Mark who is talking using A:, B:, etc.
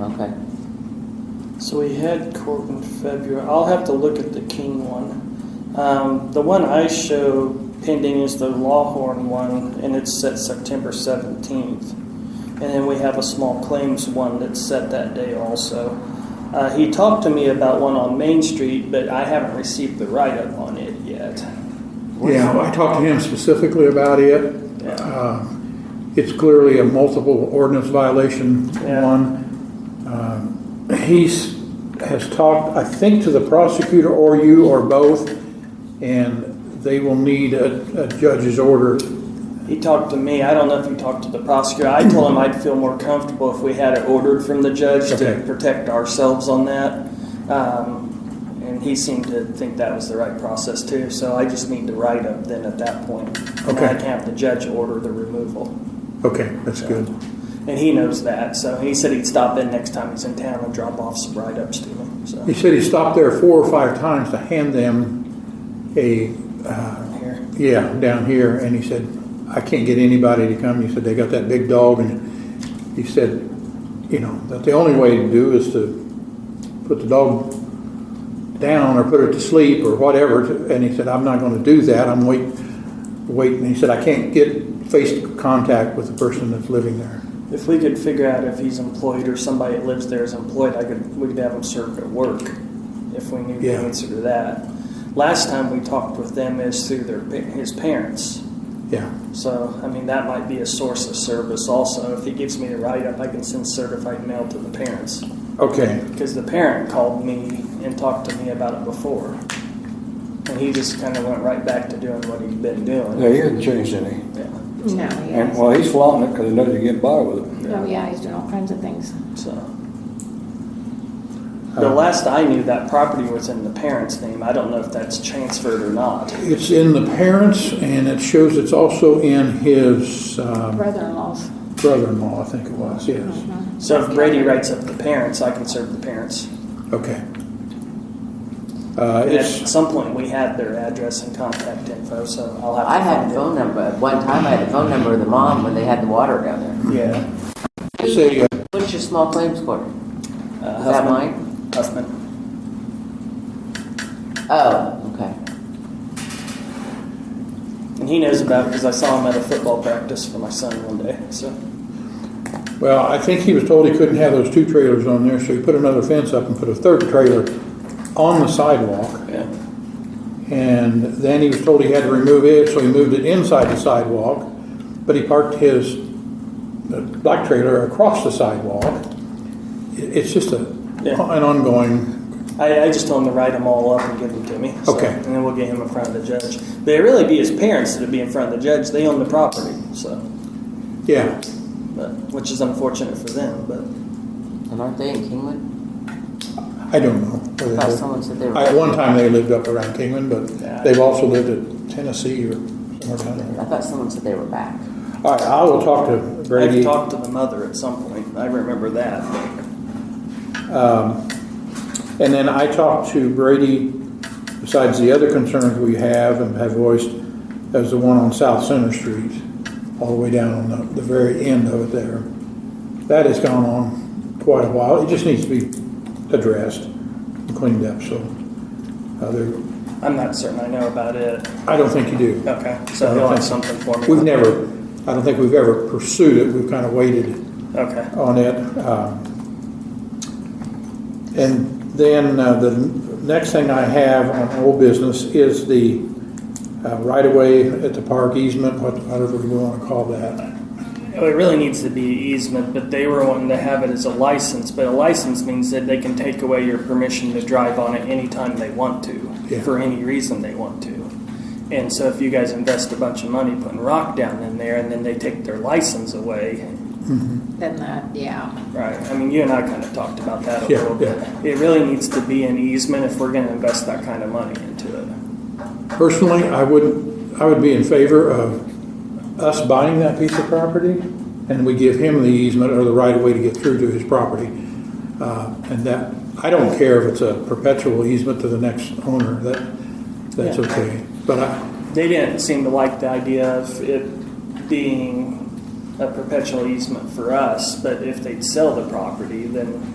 A: Okay.
B: So we had court in February. I'll have to look at the King one. Um, the one I show pending is the Lawhorn one, and it's set September 17th. And then we have a small claims one that's set that day also. Uh, he talked to me about one on Main Street, but I haven't received the write up on it yet.
C: Yeah, I talked to him specifically about it.
B: Yeah.
C: Uh, It's clearly a multiple ordinance violation,
B: Yeah.
C: one. Um, He's, has talked, I think, to the prosecutor or you or both, and they will need a, a judge's order.
B: He talked to me. I don't know if he talked to the prosecutor. I told him I'd feel more comfortable if we had it ordered from the judge
C: Okay.
B: to protect ourselves on that. Um, and he seemed to think that was the right process too. So I just need to write up then at that point. And
C: Okay.
B: I can have the judge order the removal.
C: Okay, that's good.
B: And he knows that. So he said he'd stop in next time he's in town and drop off some write ups to me. So
C: He said he stopped there four or five times to hand them a, uh,
B: here.
C: yeah, down here, and he said, I can't get anybody to come. He said, they got that big dog, and he said, you know, that the only way to do is to put the dog down or put it to sleep or whatever. to- And he said, I'm not gonna do that. I'm wait, waiting. He said, I can't get face contact with the person that's living there.
B: If we could figure out if he's employed or somebody that lives there is employed, I could we could have him served at work if we knew
C: Yeah.
B: the answer to that. Last time we talked with them is through their pa- his parents.
C: Yeah,
B: So I mean that might be a source of service also. If he gives me the write up, I can send certified mail to the parents
C: okay,
B: because the parent called me and talked to me about it before, and he just kind of went right back to doing what he'd been doing.
D: Yeah, he hasn't changed any.
B: Yeah.
E: No,
D: And,
E: yeah.
D: well, he's flaunting it because he knows you get by with it.
E: Oh, yeah, he's doing all kinds of things.
B: So. The
C: Uh,
B: last I knew, that property was in the parents' name. I don't know if that's transferred or not.
C: It's in the parents, and it shows it's also in his um,
E: Brother-in-law's.
C: brother-in-law, I think it was, yes.
E: Mhm.
B: So if Brady writes up the parents, I can serve the parents.
C: Okay. Uh,
B: And at
C: It's,
B: some point, we had their address and contact info, so I'll have to
A: I had
B: find
A: a
B: it.
A: phone number. At one time, I had a phone number of the mom when they had the water down there.
B: Yeah.
C: it's a, uh,
A: What's your small claims court?
B: Uh,
A: Is that
B: Huffman-
A: mine?
B: Huffman.
A: Oh, okay.
B: And he knows about it because I saw him at a football practice for my son one day. So,
C: well, I think he was told he couldn't have those two trailers on there, so he put another fence up and put a third trailer on the sidewalk.
B: yeah.
C: And then he was told he had to remove it, so he moved it inside the sidewalk. But he parked his uh, black trailer across the sidewalk. It- It's just a,
B: Yeah.
C: an ongoing,
B: I, I just told him to write them all up and give them to me. So-
C: Okay.
B: And then we'll get him in front of the judge. But it'd really be his parents that'd be in front of the judge. They own the property, so.
C: yeah.
B: but, which is unfortunate for them. But
A: And aren't they in Kingwood?
C: I don't know.
A: I
C: where they
A: thought
C: live.
A: someone said they
C: I- At
A: were.
C: one time, they lived up around Kingman,
B: Yeah.
C: but they've also lived at Tennessee or somewhere down there.
A: I thought someone said they were back.
C: All right, I will talk to Brady.
B: I've talked to the mother at some point. I remember that.
C: Um, And then I talked to Brady, besides the other concerns we have and have voiced, as the one on South Center Street, all the way down on the, the very end of it there. That has gone on quite a while. It just needs to be addressed and cleaned up, so. uh, there-
B: I'm not certain I know about it.
C: I don't think you do.
B: Okay, so he'll have something for me.
C: We've never, I don't think we've ever pursued it. We've kind of waited.
B: Okay.
C: on it. um, And then uh, the next thing I have on old business is the uh, right-of-way at the park easement, what- whatever you want to call that.
B: Oh, It really needs to be easement, but they were wanting to have it as a license. But a license means that they can take away your permission to drive on it anytime they want to,
C: Yeah.
B: for any reason they want to. And so if you guys invest a bunch of money putting rock down in there and then they take their license away,
E: Then that, yeah.
B: Right. I mean, you and I kind of talked about that a
C: Yeah,
B: little bit. It really needs to be an easement if we're going to invest that kind of money into it.
C: Personally, I would, I would be in favor of us buying that piece of property, and we give him the easement or the right-of-way to get through to his property. Uh, And that, I don't care if it's a perpetual easement to the next owner, that, that's
B: Yeah.
C: okay. But I,
B: They didn't seem to like the idea of it being a perpetual easement for us, but if they'd sell the property, then